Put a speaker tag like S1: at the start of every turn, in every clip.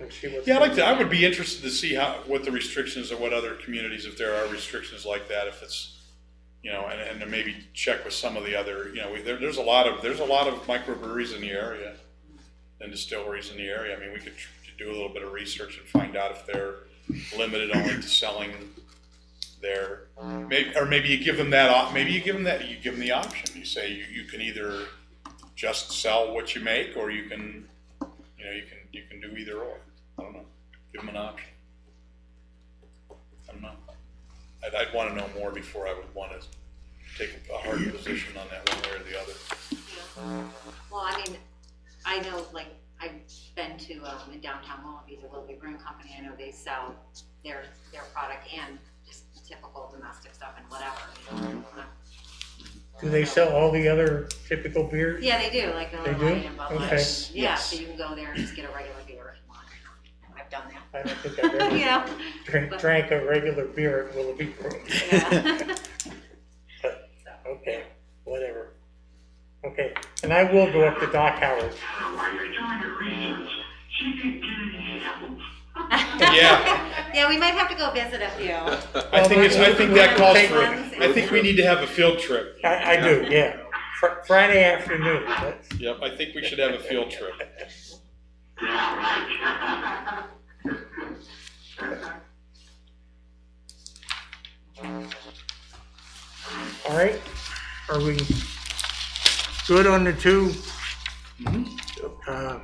S1: and see what.
S2: Yeah, I like to, I would be interested to see how, what the restrictions or what other communities, if there are restrictions like that, if it's, you know, and, and to maybe check with some of the other, you know, we- there, there's a lot of, there's a lot of microbreweries in the area and distilleries in the area. I mean, we could tr- do a little bit of research and find out if they're limited only to selling their, maybe, or maybe you give them that, op- maybe you give them that, you give them the option. You say you, you can either just sell what you make or you can, you know, you can, you can do either or. I don't know. Give them an option. I don't know. I'd, I'd want to know more before I would want to take a hard position on that one way or the other.
S3: Well, I mean, I know, like, I've been to, um, in downtown Willoughby, the Willoughby Brewing Company, I know they sell their, their product and just typical domestic stuff and whatever. you know.
S1: Do they sell all the other typical beers?
S3: Yeah, they do, like,
S1: They
S3: Miller
S1: do?
S3: Lite and Bud Light.
S1: Okay.
S3: Yeah,
S2: Yes.
S3: so you can go there and just get a regular beer if you want. I've done that.
S1: I don't think I've ever
S3: You know?
S1: drank, drank a regular beer at Willoughby Brewing.
S3: Yeah. So,
S1: Okay, whatever. Okay, and I will go up to Doc Howard.
S4: While you're doing your research, she can get an apple.
S2: Yeah.
S3: Yeah, we might have to go visit a few.
S2: I think it's, I think that calls for, it. I think we need to have a field trip.
S1: I, I do, yeah. Fr- Friday afternoon, that's,
S2: Yep, I think we should have a field trip.
S1: all right? Are we good on the two? uh,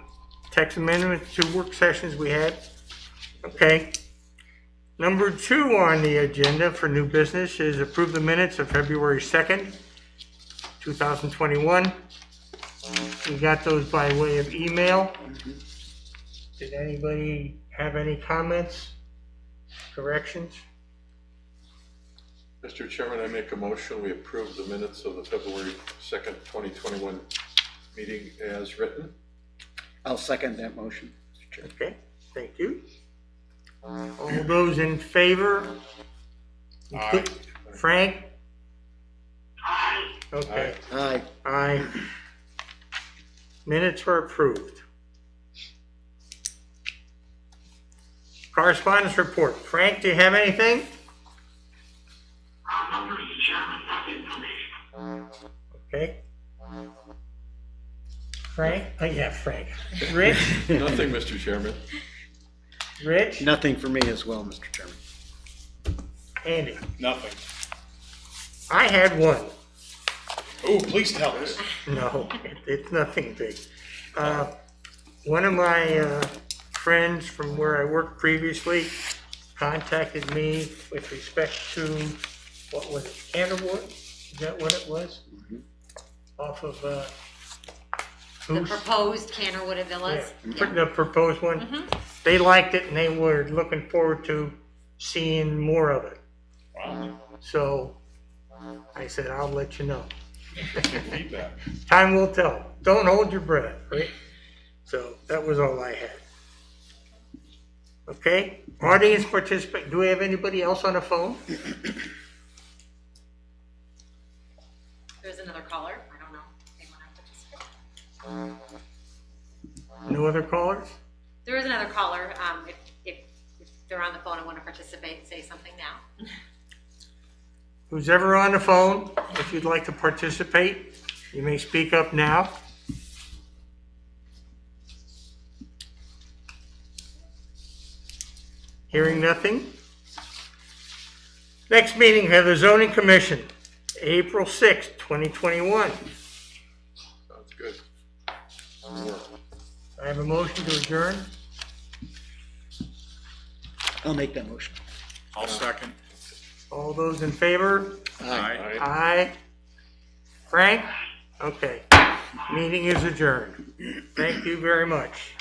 S1: Tax amendments, two work sessions we had? Okay. Number two on the agenda for new business is approve the minutes of February 2nd, 2021. We got those by way of email. Did anybody have any comments, corrections?
S5: Mr. Chairman, I make a motion, we approve the minutes of the February 2nd, 2021 meeting as written.
S6: I'll second that motion. Mr. Chair.
S1: Okay, thank you. Uh, All those in favor?
S2: Aye.
S1: Frank? Okay.
S6: Aye.
S1: Aye. Minutes were approved. Correspondence report. Frank, do you have anything?
S4: I'm not Mr. Chairman, nothing for me.
S1: Okay. Frank? Oh, yeah, Frank. Rich?
S5: Nothing, Mr. Chairman.
S1: Rich?
S6: Nothing for me as well, Mr. Chairman.
S1: Andy?
S2: Nothing.
S1: I had one.
S2: Oh, please tell us.
S1: No, it- it's nothing big. Uh, One of my uh, friends from where I worked previously contacted me with respect to, what was it, Canterwood? Is that what it was?
S3: Mm-hmm.
S1: Off of, uh,
S3: The
S1: Goose?
S3: proposed Cannerwood
S1: Yeah,
S3: Villas.
S1: pr- The proposed one.
S3: Mm-hmm.
S1: They liked it and they were looking forward to seeing more of it.
S2: Wow,
S1: So I said, I'll let you know.
S2: good feedback.
S1: Time will tell. Don't hold your breath, right? So that was all I had. Okay, audience participant, do we have anybody else on the phone?
S3: There's another caller, I don't know. They wanna participate.
S1: No other callers?
S3: There is another caller, um, if, if, if they're on the phone and want to participate, say something now.
S1: Who's ever on the phone, if you'd like to participate, you may speak up now. Hearing nothing. Next meeting, have the zoning commission, April 6th, 2021.
S5: Sounds good.
S1: I have a motion to adjourn.
S6: I'll make that motion.
S2: I'll second.
S1: All those in favor?
S6: Aye.
S1: Aye. Frank? Okay. Meeting is adjourned. Thank you very much.